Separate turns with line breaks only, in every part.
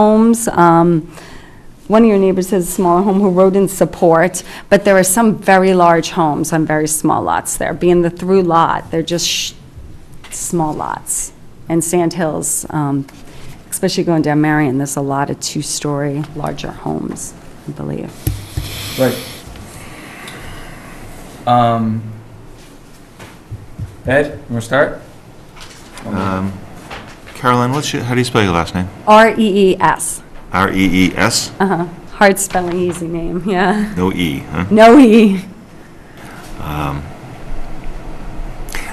homes. Um, One of your neighbors has a smaller home who wrote in support, but there are some very large homes on very small lots there. Being the through lot, they're just sh- small lots. And Sand Hills, um, especially going down Marion, there's a lot of two-story larger homes, I believe.
Right. Um, Ed, you want to start?
Um, Caroline, what's your, how do you spell your last name? E
R-E-E-S,
R-E-E-S?
uh-huh. E Hard spelling, easy name, yeah.
No E, huh?
No E.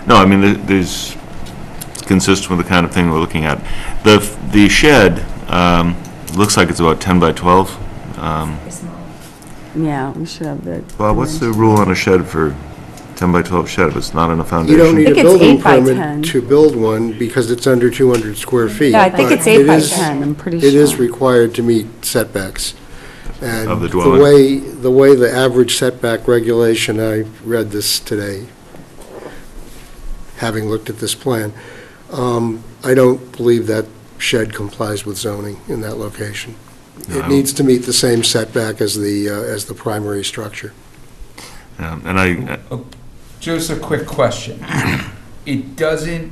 No, I mean, there- there's, it's consistent with the kind of thing we're looking at. The, f- the shed, um, looks like it's about 10 by 12. Um,
Yeah, we should have the.
Bob, what's the rule on a shed for 10 by 12 shed if it's not on a
You don't
foundation?
need a
think it's
building
eight by 10.
permit to build one because it's under 200 square feet.
Yeah, I think
but
it's eight
it
by
is-
10, I'm pretty sure.
It is required to meet setbacks. And
Of the dwelling.
way, the way the average setback regulation, I read this today, having looked at this plan, um, I don't believe that shed complies with zoning in that location.
No, I
It
don't-
needs to meet the same setback as the, uh, as the primary structure.
Um, And I,
Just a quick question. It doesn't.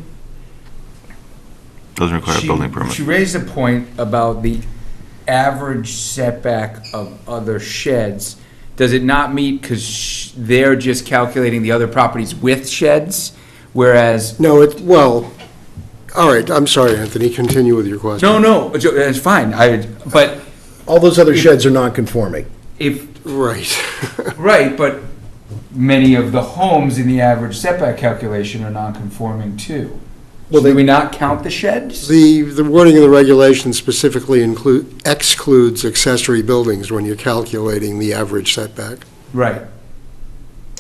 doesn't require a
she-
building permit.
She raised a point about the average setback of other sheds. Does it not meet, because they're just calculating the other properties with sheds, whereas,
No, it, well, all right, I'm sorry, Anthony, continue with your question.
no, no, it's- it's fine, I, but
All those other sheds are non-conforming.
if,
Right.
Right, but many of the homes in the average setback calculation are non-conforming too. Well,
Well,
do we
they-
not count the sheds?
The, the wording of the regulation specifically include, excludes accessory buildings when you're calculating the average setback.
Right.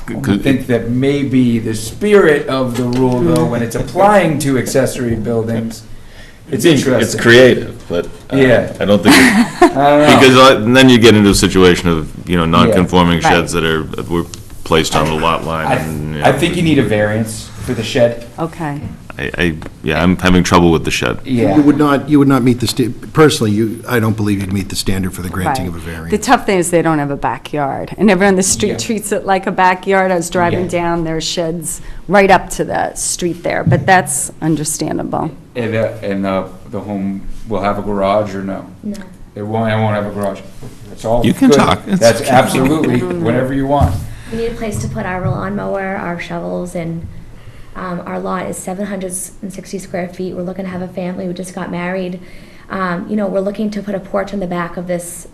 I
Could-
think that maybe the spirit of the rule, though, when it's applying to accessory buildings, it's
It's
interesting.
creative, but uh,
Yeah.
I don't think, it-
I don't know.
because I- then you get into a situation of, you know, non-conforming
Right.
sheds that are, that were placed on the lot line. and,
I, I
know,
think you need a variance for the shed,
Okay.
I, I, yeah, I'm having trouble with the shed.
You
yeah.
would not, you would not meet the, sta- personally, you, I don't believe you'd meet the standard for the granting of a
Right.
variance.
The tough thing is they don't have a backyard, and everyone on the
Yeah.
street treats it like a backyard. I was driving
Yeah.
down, there are sheds right up to the street there, but that's understandable.
And, uh, and uh, the home will have a garage or no? No. It won't, I won't have a garage. That's all.
You can
good.
talk. It's
That's
okay.
absolutely, whatever you want.
We need a place to put our lawnmower, our shovels, and um, our lot is 760 square feet. We're looking to have a family. We just got married. Um, You know, we're looking to put a porch on the back of this,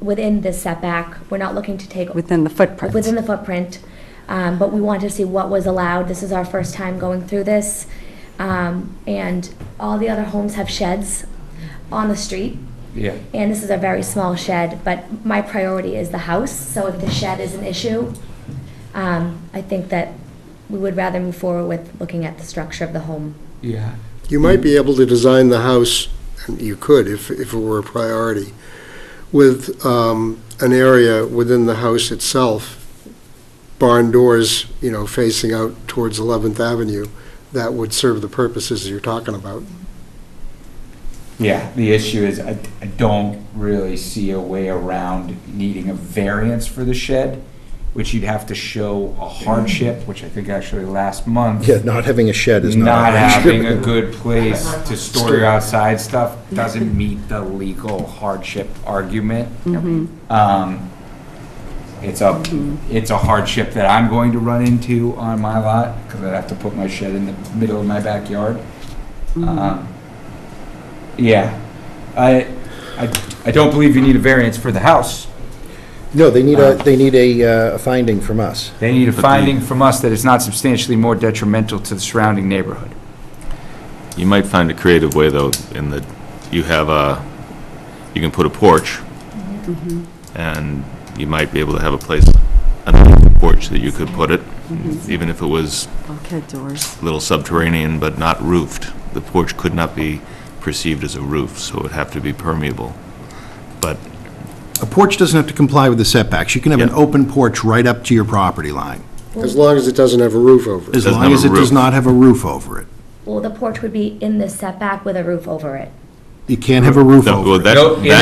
within this setback. We're not looking to take,
Within the footprint.
within the footprint, um, but we wanted to see what was allowed. This is our first time going through this. Um, And all the other homes have sheds on the street.
Yeah.
And this is a very small shed, but my priority is the house, so if the shed is an issue, um, I think that we would rather move forward with looking at the structure of the home.
Yeah.
You might be able to design the house, and you could if, if it were a priority, with um, an area within the house itself, barn doors, you know, facing out towards 11th Avenue, that would serve the purposes you're talking about.
Yeah, the issue is I, I don't really see a way around needing a variance for the shed, which you'd have to show a hardship, which I think actually last month.
Yeah, not having a shed is not.
Not
a hardship.
having a good place to store your outside stuff doesn't meet the legal hardship argument. Um, It's a, it's a hardship that I'm going to run into on my lot, because I'd have to put my shed in the middle of my backyard. Um, Yeah, I, I, I don't believe you need a variance for the house.
No, they need a, they need a uh, finding from us.
They need a
But the-
finding from us that it's not substantially more detrimental to the surrounding neighborhood.
You might find a creative way, though, in that you have a, you can put a porch, and you might be able to have a place underneath the porch that you could put it, even if it was
Bulkhead doors.
a little subterranean but not roofed. The porch could not be perceived as a roof, so it would have to be permeable. But
A porch doesn't have to comply with the setbacks. You can have an
Yeah.
open porch right up to your property line,
As long as it doesn't have a roof over it.
as
Doesn't
long
have
as
a
it does
roof.
not have a roof over it.
Well, the porch would be in this setback with a roof over it.
You can't have a roof
No,
over
well,
it.
that-
No,
that-